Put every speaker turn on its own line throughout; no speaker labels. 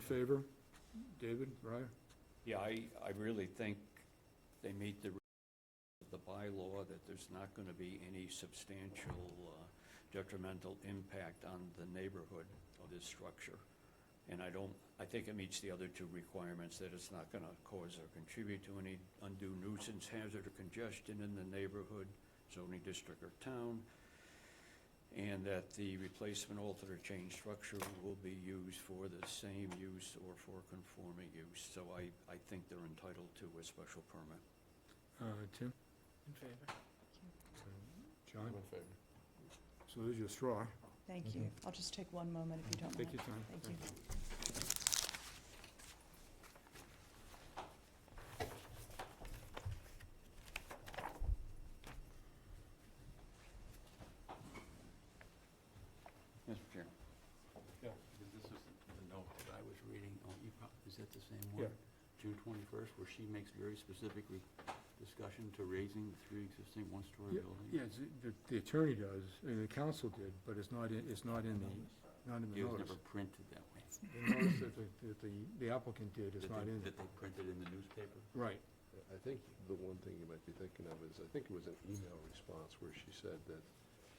favor? David, Brian?
Yeah, I, I really think they meet the, re- of the bylaw that there's not going to be any substantial uh, detrimental impact on the neighborhood of this structure. And I don't, I think it meets the other two requirements, that it's not going to cause or contribute to any undue nuisance, hazard, or congestion in the neighborhood, zoning district, or town, and that the replacement, altered, or changed structure will be used for the same use or for conforming use. So I, I think they're entitled to a special permit.
Uh, Tim?
In favor.
John? So there's your straw.
Thank you. I'll just take one moment if you don't
Take
mind.
your time.
Thank you.
Yes, Chair.
This is the note that I was reading, Oh, you prob- is that the same
Yeah.
one? June twenty-first, where she makes very specific re- discussion to raising the three existing one-story
Yeah,
buildings?
Yeah, it's- the- the attorney does, and the council did, but it's not, in- it's not in the, not in the
It was
notice.
never printed that way.
The notice that the, that the- the applicant did is
That
not
they-
in there.
That they printed in the newspaper?
Right.
I think the one thing you might be thinking of is, I think it was an email response where she said that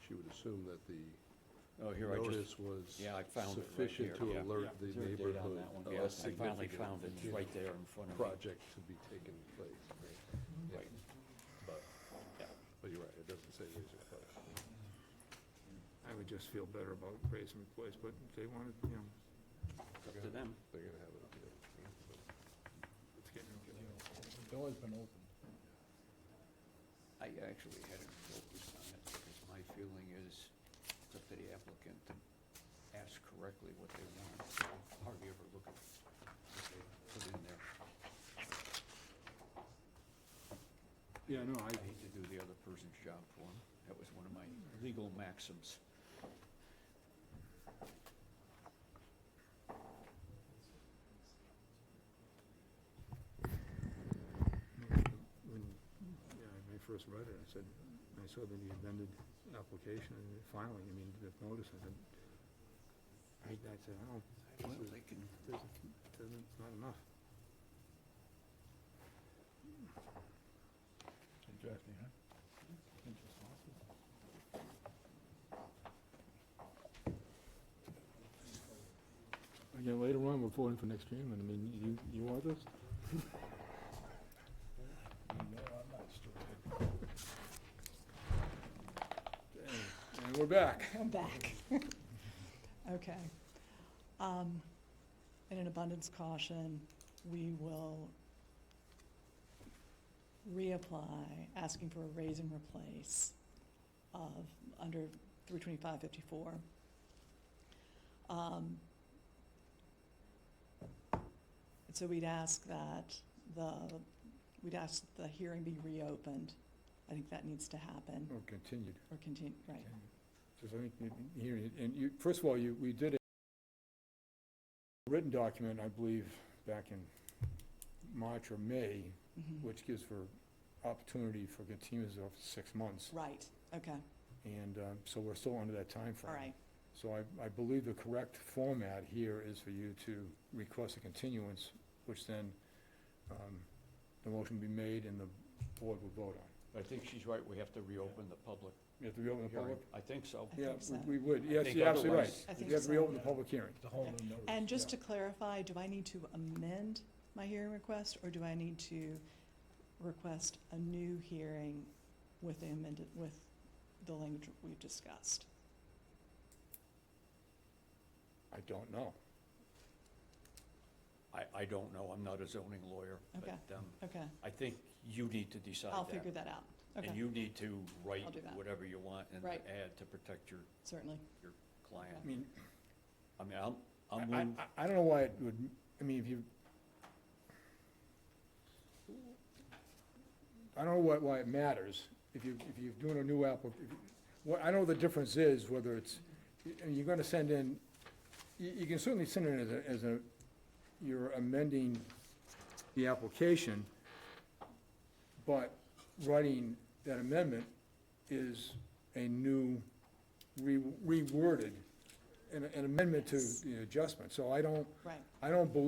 she would assume that the
Oh, here, I just,
notice was
yeah, I found it right
sufficient
here,
to
yeah.
alert
Yeah.
the
Is there a date on
neighborhood
that one?
of
yeah,
a
I finally
significant
found it It's right there in front of me.
project to be taking place. Yeah,
Right.
But, but you're right, it doesn't say raising place.
I would just feel better about raising the place, but they wanted, you know,
It's Up to them.
They're gonna have it up there.
it's getting,
I actually hadn't focused on it because my feeling is it's up to the applicant to ask correctly what they want. Hardly ever look at what they put in there.
yeah, no, I,
I hate to do the other person's job for them. That was one of my legal maxims.
when, yeah, when I first read it, I said, I saw the amended application, and finally, I mean, the notice, I said, I, I said, I don't,
I don't know, they can,
doesn't, doesn't, it's not enough. Again, later on, we're voting for next chairman, I mean, you, you want this? And we're back.
I'm back. Okay. Um, In an abundance of caution, we will reapply, asking for a raise and replace of, under 32554. Um, and So we'd ask that the, we'd ask that the hearing be reopened. I think that needs to happen
Or continued.
or continue, right.
Because I think, you- you hear it, and you, first of all, you, we did a written document, I believe, back in March or May,
Mhm.
which gives for opportunity for continuance of six months.
Right, okay,
And um, so we're still under that time frame.
all right,
So I, I believe the correct format here is for you to request a continuance, which then um, the motion will be made and the board will vote on.
I think she's right, we have to reopen the public
You have to reopen the
hearing.
public?
I think so.
I
Yeah,
think so.
we we would, yes,
think
you're absolutely
otherwise-
right.
I
You
think
have to
so.
reopen the public hearing.
And just to clarify, do I need to amend my hearing request, or do I need to request a new hearing with the amended, with the language we've discussed?
I don't know.
I, I don't know, I'm not a zoning lawyer,
Okay.
but, um,
Okay,
I think you need to decide that.
I'll figure that out,
And
okay,
you need to write
I'll do that.
whatever you want and
Right.
add to protect your
certainly,
client.
I mean,
I mean, I'm,
I,
I'm,
I-
move-
I- I don't know why it would, I mean, if you, I don't know why, why it matters, if you, if you're doing a new applic, if you- what, I know the difference is whether it's, y- and you're gonna send in, you, you can certainly send in as a, as a, you're amending the application, but writing that amendment is a new, re- reworded an an amendment to the adjustment, so I don't,
right.
I don't believe